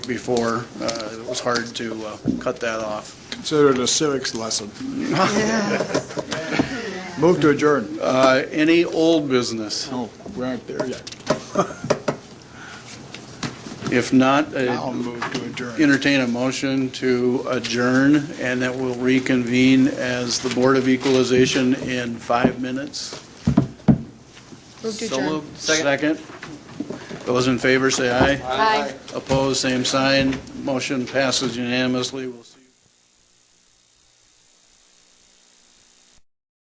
before, uh, it was hard to uh, cut that off. Consider it a civics lesson. Move to adjourn. Uh, Any old business? No, we aren't there yet. If not, Now uh, move to adjourn. entertain a motion to adjourn, and that we'll reconvene as the Board of Equalization in five minutes. Move to So adjourn. moved. Second. Those in favor, say aye. Aye. Opposed, same sign. Motion passes unanimously. We'll see.